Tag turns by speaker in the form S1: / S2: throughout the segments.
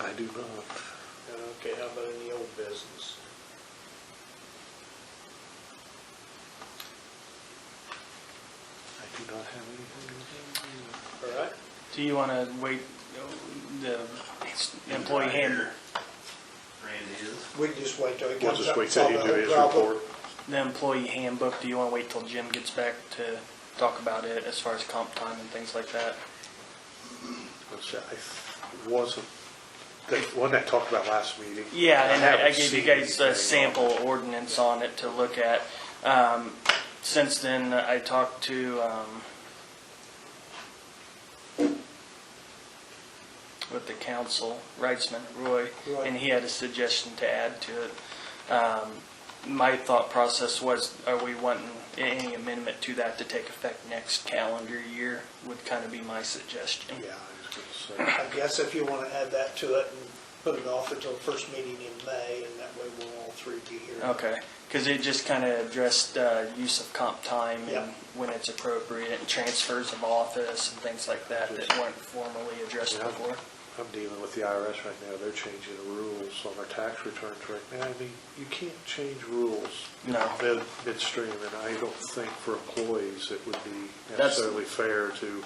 S1: I do not.
S2: Okay, how about any old business?
S1: I do not have anything.
S2: All right,
S3: Do you want to wait, uh, the employee handler,
S4: Randy is.
S2: we can just wait till he
S1: We'll
S2: comes
S1: just
S2: up.
S1: wait till he
S2: solve
S1: do
S2: the
S1: his
S2: problem.
S1: report.
S3: the employee handbook, do you want to wait till Jim gets back to talk about it as far as comp time and things like that?
S1: which I wasn't, the one I talked about last meeting.
S3: Yeah, and I, I
S1: haven't
S3: gave you
S1: seen
S3: guys a
S1: anything.
S3: sample ordinance on it to look at. Um, since then, I talked to, um, with the council, Reitzman, Roy,
S2: Roy.
S3: and he had a suggestion to add to it. Um, my thought process was, are we wanting any amendment to that to take effect next calendar year would kind of be my suggestion.
S1: Yeah, I was gonna say,
S2: I guess if you want to add that to it and put it off until the first meeting in May, and that way we'll all three be here.
S3: Okay, because it just kind of addressed uh, use of comp time
S2: Yeah.
S3: and when it's appropriate, and transfers of office and things like that that weren't formally addressed
S1: Yeah.
S3: before.
S1: I'm dealing with the IRS right now, they're changing the rules on their tax returns right now. I mean, you can't change rules
S3: No,
S1: mid, midstream, and I don't think for employees it would be
S3: That's-
S1: necessarily fair to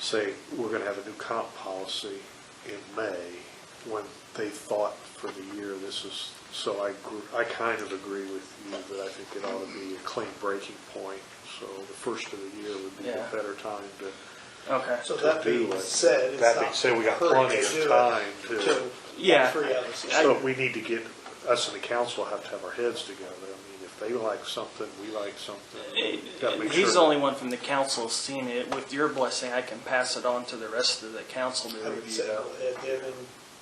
S1: say, we're gonna have a new comp policy in May, when they thought for the year this is, so I, gr- I kind of agree with you that I think it ought to be a clean breaking point, so the first of the year would be
S3: Yeah.
S1: a better time to.
S3: okay.
S2: So that
S1: To do
S2: being
S1: it.
S2: said, it's not.
S1: That being said, we got
S2: hurry
S1: plenty
S2: to
S1: of
S2: do it
S1: time to-
S2: till
S3: Yeah.
S2: Three others.
S1: So we need to get, us and the council have to have our heads together. I mean, if they like something, we like something. we gotta make
S3: He's the
S1: sure-
S3: only one from the council seeing it. With your blessing, I can pass it on to the rest of the council
S2: I
S3: to
S2: would
S3: review
S2: say,
S3: though.
S2: and then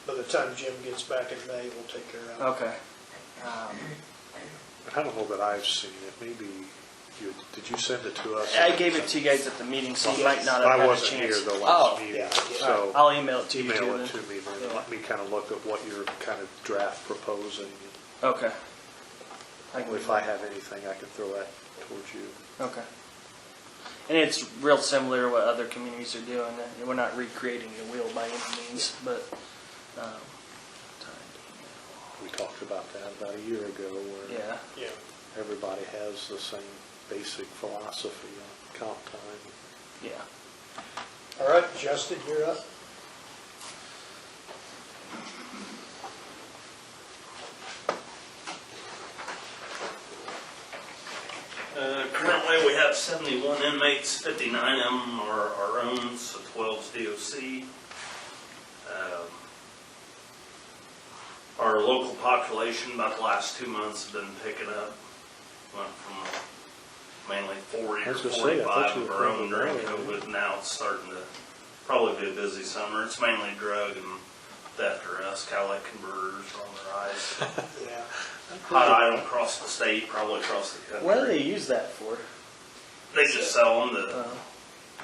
S2: by the time Jim gets back in May, we'll take care of it.
S3: Okay. Um,
S1: I don't know that I've seen it, maybe, you, did you send it to us?
S3: I gave it to you guys at the meeting, so you might not have
S1: I
S3: had a
S1: wasn't here
S3: chance.
S1: the
S3: Oh,
S1: last meeting,
S2: yeah, yeah.
S3: all right.
S1: so
S3: I'll email it to you too
S1: email it
S3: then.
S1: to me, then
S3: Yeah.
S1: let me kind of look at what you're kind of draft proposing.
S3: Okay. I can do
S1: If I have anything, I can throw that towards you.
S3: Okay. And it's real similar to what other communities are doing. and We're not recreating the wheel by any means, but, um,
S1: We talked about that about a year ago, where
S3: yeah.
S2: Yeah.
S1: everybody has the same basic philosophy on comp time.
S3: Yeah.
S2: All right, Justin, you're up.
S4: Uh, Currently, we have 71 inmates, 59 of them are our own, so 12's DOC. Um, Our local population, about the last two months, has been picking up. Went from mainly 40
S1: I
S4: or
S1: was gonna say, I thought
S4: 45
S1: you
S4: of
S1: were
S4: our own
S1: probably
S4: during
S1: more,
S4: COVID. Now it's starting to probably be a busy summer. It's mainly drug and theft arrests, kind of like converters on the rise.
S2: Yeah.
S4: Hot item across the state, probably across the country.
S3: What do they use that for?
S4: They just sell them
S3: Uh,
S4: to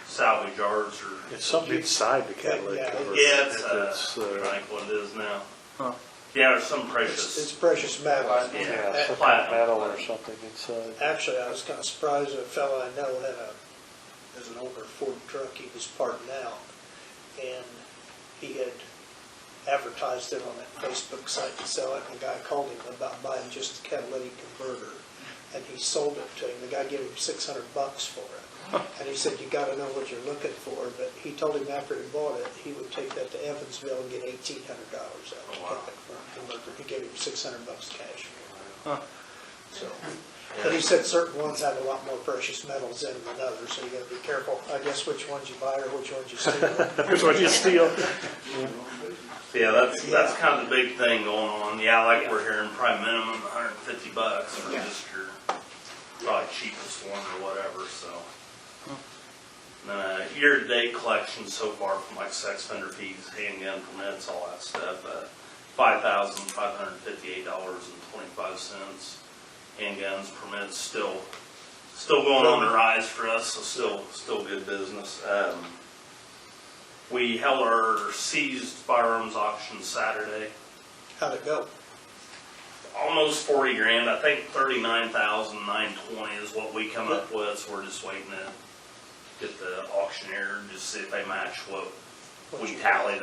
S4: salvage yards or,
S1: It's something inside the catalytic
S2: Yeah,
S1: converter.
S4: yeah, it's,
S1: It's,
S4: uh,
S1: uh,
S4: I think what it is now.
S3: Huh.
S4: Yeah, there's some
S2: It's it's
S4: precious,
S2: precious metal.
S3: Platinum.
S1: Yeah,
S4: yeah,
S1: some kind of
S4: platinum.
S1: metal or something inside.
S2: Actually, I was kind of surprised, a fellow I know had a, has an older Ford truck he was parting out, and he had advertised it on that Facebook site to sell it, and the guy called him about buying just the catalytic converter, and he sold it to him, the guy gave him six hundred bucks for it. And he said, you gotta know what you're looking for, but he told him after he bought it, he would take that to Evansville and get eighteen hundred dollars out
S4: Oh,
S2: of
S4: wow.
S2: it for a converter, he gave him six hundred bucks cash for
S3: Huh.
S2: it. So, but he said certain ones have a lot more precious metals in than others, so you gotta be careful, I guess, which ones you buy or which ones you steal.
S1: Here's what you steal.
S4: Yeah, that's, that's kind of the big thing going on. Yeah, like we're hearing probably minimum hundred and fifty bucks for
S2: Yeah.
S4: just your probably cheapest one or whatever, so. Uh, year-to-date collection so far from like sex offender fees, handgun permits, all that stuff, uh, five thousand five hundred fifty-eight dollars and twenty-five cents. Handguns permits still, still going on the rise for us, so still, still good business. Um, we held our seized firearms auction Saturday.
S2: How'd it go?
S4: Almost forty grand, I think thirty-nine thousand nine twenty is what we come up with, so we're just waiting to get the auctioneer, just see if they match what
S2: What
S4: we
S2: you-
S4: tallied